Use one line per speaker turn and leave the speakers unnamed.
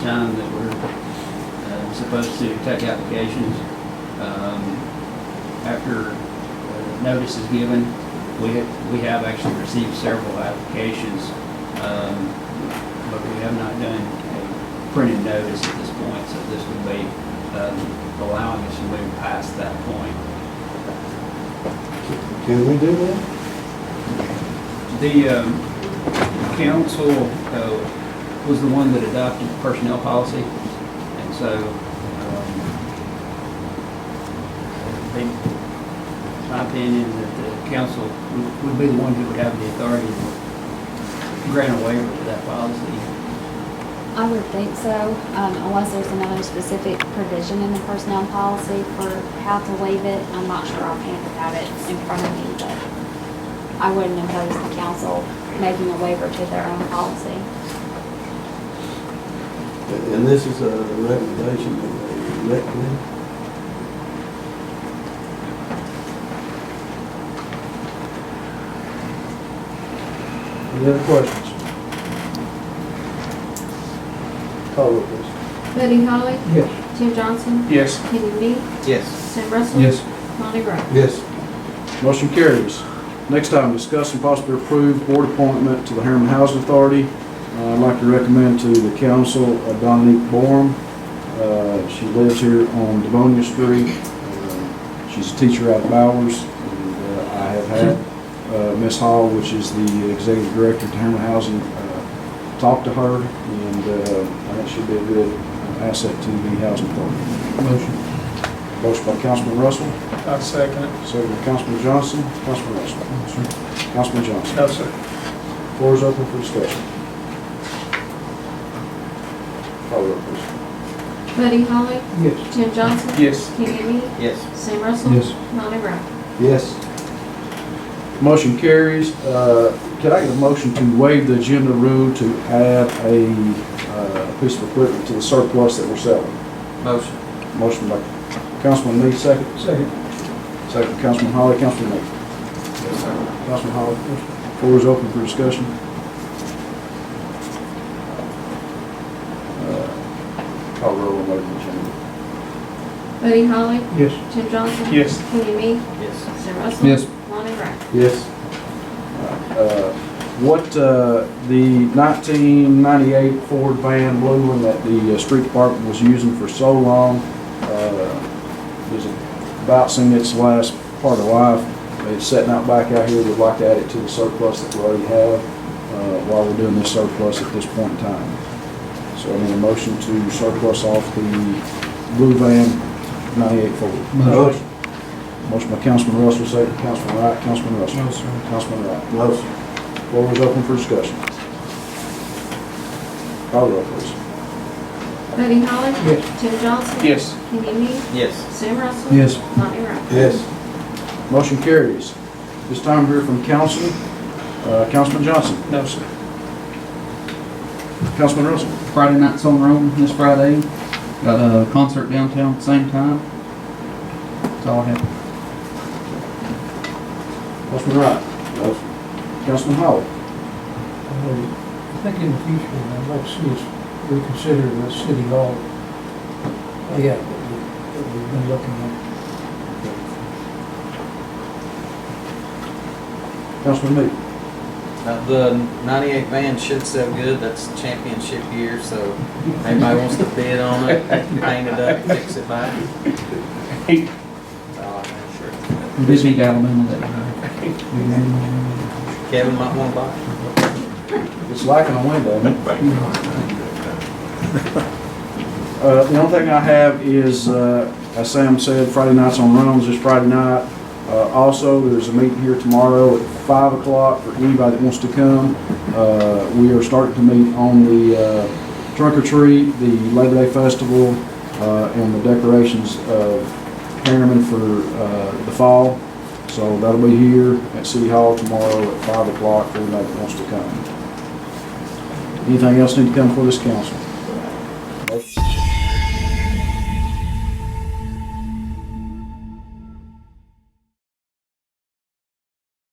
time that we're uh, supposed to take applications. Um, After uh, notice is given, we have, we have actually received several applications, um, but we have not done a printed notice at this point, so this would be um, allowing us to move past that point.
Can we do that?
The um, council uh, was the one that adopted the personnel policy, and so um, they, it's my opinion that the council would- would be the one who would have the authority to grant a waiver to that policy.
I would think so, um, unless there's another specific provision in the personnel policy for how to waive it. I'm not sure offhand without it in front of me, but I wouldn't impose the council making a waiver to their own policy.
And this is a recommendation of the rec committee? Any other questions? Call roll, please.
Buddy Holly?
Yes.
Tim Johnson?
Yes.
Kenny Me?
Yes.
Sam Russell?
Yes.
Lonnie Wright?
Yes.
Motion carries. Next item, discuss and possibly approve board appointment to the Harriman Housing Authority. Uh, I'd like to recommend to the council uh, Dominique Borm. Uh, She lives here on Devonia Street. Uh, She's a teacher out of Bowers. And uh, I have had uh, Ms. Hall, which is the executive director of Harriman Housing, uh, talk to her, and uh, I think she'd be a good asset to the housing authority. Motion by Councilman Russell.
I second it.
Second by Councilman Johnson, Councilman Russell. Councilman Johnson.
No, sir.
Floor is open for discussion. Call roll, please.
Buddy Holly?
Yes.
Tim Johnson?
Yes.
Kenny Me?
Yes.
Sam Russell?
Yes.
Lonnie Wright?
Yes.
Motion carries. Uh, Could I get a motion to waive the agenda rule to add a uh, piece of equipment to the surplus that we're selling?
Motion.
Motion by Councilman Lee, second.
Second.
Second, by Councilman Holly, Councilman Lee. Councilman Holly, floor is open for discussion. Uh, Call roll on waiting the agenda.
Buddy Holly?
Yes.
Tim Johnson?
Yes.
Kenny Me?
Yes.
Sam Russell?
Yes.
Lonnie Wright?
Yes.
Uh, What, uh, the 1998 Ford van, blue one that the uh, street department was using for so long, uh, is about seen its last part of life. It's sitting out back out here, we'd like to add it to the surplus that we already have uh, while we're doing this surplus at this point in time. So I need a motion to surplus off the blue van 98 Ford.
Motion.
Motion by Councilman Russell, second by Councilman Wright, Councilman Russell. Councilman Wright.
Motion.
Floor is open for discussion. Call roll, please.
Buddy Holly?
Yes.
Tim Johnson?
Yes.
Kenny Me?
Yes.
Sam Russell?
Yes.
Lonnie Wright?
Yes.
Motion carries. This time we're from council. Uh, Councilman Johnson.
No, sir.
Councilman Russell.
Friday nights on Rome this Friday. Got a concert downtown at the same time. That's all I have.
Councilman Wright.
Motion.
Councilman Howell.
I think in the future, I'd like to see us reconsider the city hall layout that we, that we've been looking at.
Councilman Meade.
Now, Uh, the ninety-eight van should sell good. That's championship year, so anybody wants to bid on it, paint it up, fix it back. Oh,
We did beat Alabama that night.
Kevin might wanna buy it.
It's lacking a window. isn't it? Uh, the only thing I have is, uh, as Sam said, Friday nights on Rome's this Friday night. Uh, also, there's a meeting here tomorrow at five o'clock for anybody that wants to come. Uh, we are starting to meet on the, uh, trunk or treat, the Labor Day Festival, uh, and the decorations of Harriman for, uh, the fall. So that'll be here at City Hall tomorrow at five o'clock for anybody that wants to come. Anything else need to come before this council?